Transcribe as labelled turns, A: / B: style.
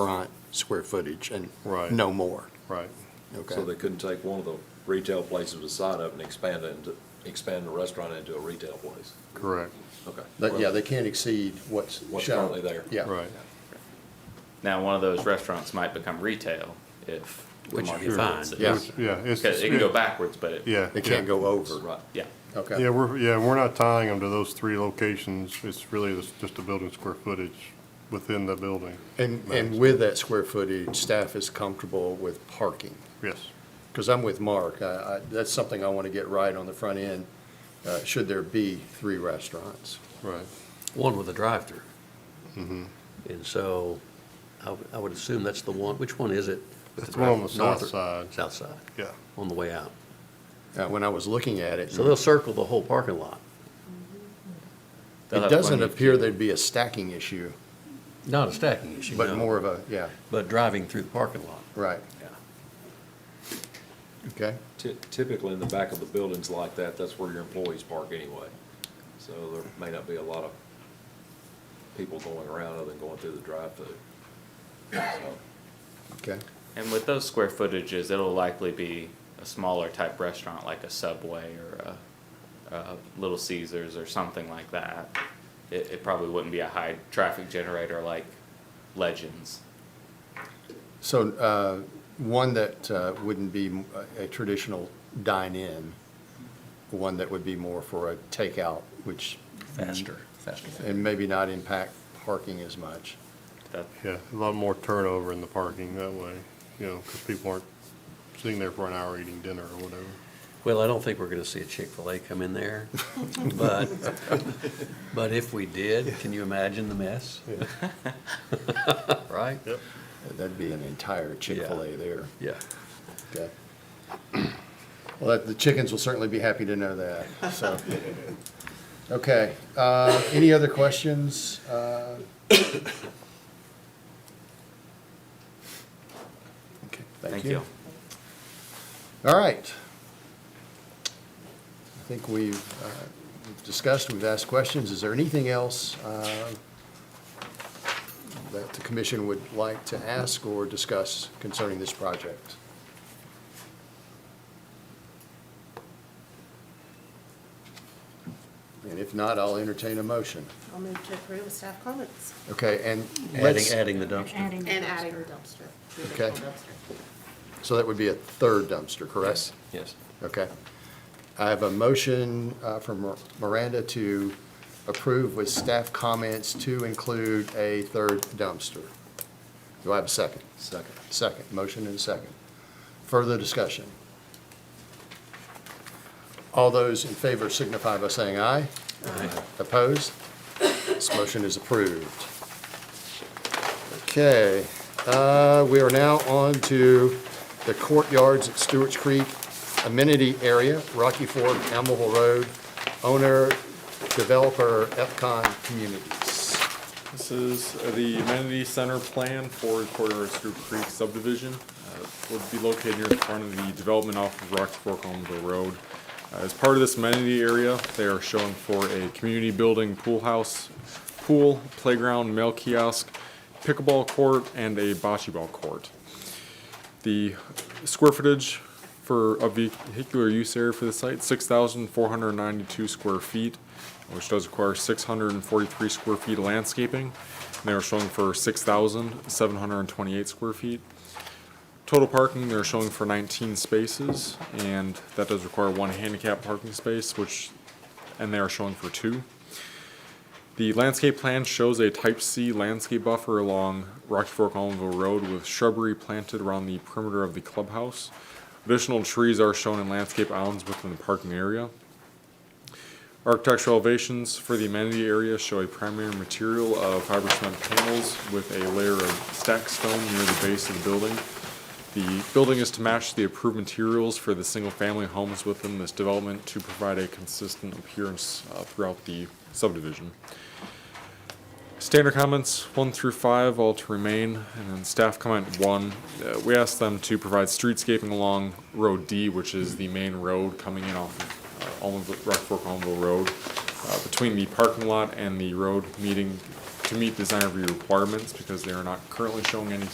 A: front square footage and
B: Right.
A: no more,
B: Right.
C: So they
A: okay?
C: couldn't take one of the retail places beside it and expand it into, expand the restaurant into a retail place?
B: Correct.
C: Okay.
A: But, yeah, they can't exceed what's shown.
C: What's currently there.
A: Yeah.
B: Right.
D: Now, one of those restaurants might become retail if the
E: Which would be
D: market
E: fine,
D: fits it.
A: yeah.
B: Yeah. it's-
D: Because it can go backwards, but it.
B: Yeah.
A: It can't go over,
C: Right.
D: Yeah.
A: okay?
B: Yeah, we're, yeah, we're not tying them to those three locations. It's really this- just the building square footage within the building.
A: And, and with that square footage, staff is comfortable with parking?
B: Yes.
A: Because I'm with Mark, I, I, that's something I want to get right on the front end, uh, should there be three restaurants?
B: Right.
E: one with a drive-through.
B: Mm-hmm.
E: And so I would- I would assume that's the one, which one is it? with
B: That's the one on the
E: drive-through?
B: south side.
E: South side,
B: Yeah.
E: on the way out.
A: Uh, when I was looking at it,
B: Mm-hmm.
E: So they'll circle the whole parking lot.
D: They'll
A: it
D: have
A: doesn't
D: plenty of-
A: appear there'd be a stacking issue,
E: Not a stacking issue,
A: but
E: no,
A: more of a, yeah,
E: But driving through the parking lot.
A: right,
E: Yeah.
A: okay?
C: Ty- Typically, in the back of the buildings like that, that's where your employees park anyway. So there may not be a lot of people going around other than going through the drive-through. So,
A: Okay,
D: And with those square footages, it'll likely be a smaller type restaurant like a Subway or a, a Little Caesar's or something like that. It, it probably wouldn't be a high traffic generator like Legends.
A: so, uh, one that, uh, wouldn't be a a traditional dine-in, one that would be more for a takeout, which,
E: Faster. Faster.
A: and maybe not impact parking as much.
D: That,
B: Yeah, a lot more turnover in the parking that way, you know, because people aren't sitting there for an hour eating dinner or whatever.
E: Well, I don't think we're gonna see a Chick-fil-A come in there, but, but if we did, can you imagine the mess? Right?
B: Yep.
A: That'd be an entire Chick-fil-A there.
E: Yeah.
A: Okay. Well, that- the chickens will certainly be happy to know that, so. Okay, uh, any other questions? Uh, Okay,
D: thank you.
A: All right. I think we've uh, we've discussed, we've asked questions. Is there anything else uh, that the commission would like to ask or discuss concerning this project? And if not, I'll entertain a motion.
F: I'll move to approve with staff comments
A: Okay, and
E: Adding,
A: let's,
E: adding the dumpster.
F: and adding the dumpster. the
A: Okay.
F: additional dumpster.
A: so that would be a third dumpster, correct?
E: Yes.
A: Okay. I have a motion uh, from Miranda to approve with staff comments to include a third dumpster. Do I have a second?
C: Second.
A: Second, motion and a second. Further discussion? All those in favor signify by saying aye. Opposed? This motion is approved. Okay, uh, we are now on to the courtyards at Stewart's Creek amenity area, Rocky Fork, Amable Road, owner, developer, Epcon Communities.
G: This is the amenity center plan for Corridor Screw Creek subdivision. Uh, Would be located near the front of the development off of Rocky Fork Olmsville Road. Uh, As part of this amenity area, they are showing for a community building, pool house, pool, playground, mail kiosk, pickleball court, and a bocce ball court. The square footage for a vehicular use area for the site, six thousand four hundred ninety-two square feet, which does require six hundred and forty-three square feet of landscaping. And they are showing for six thousand seven hundred and twenty-eight square feet. Total parking, they're showing for nineteen spaces, and that does require one handicap parking space, which, and they are showing for two. The landscape plan shows a type C landscape buffer along Rocky Fork Allenville Road with shrubbery planted around the perimeter of the clubhouse. Additional trees are shown in landscape islands within the parking area. Architectural elevations for the amenity area show a primary material of fiber cement panels with a layer of stack stone near the base of the building. The building is to match the approved materials for the single-family homes within this development to provide a consistent appearance uh, throughout the subdivision. Standard comments one through five all to remain, and then staff comment one. uh, we asked them to provide streetscaping along Road D, which is the main road coming in off of uh, Almond- Rock Fork Allenville Road, uh, between the parking lot and the road meeting to meet design review requirements because they are not currently showing any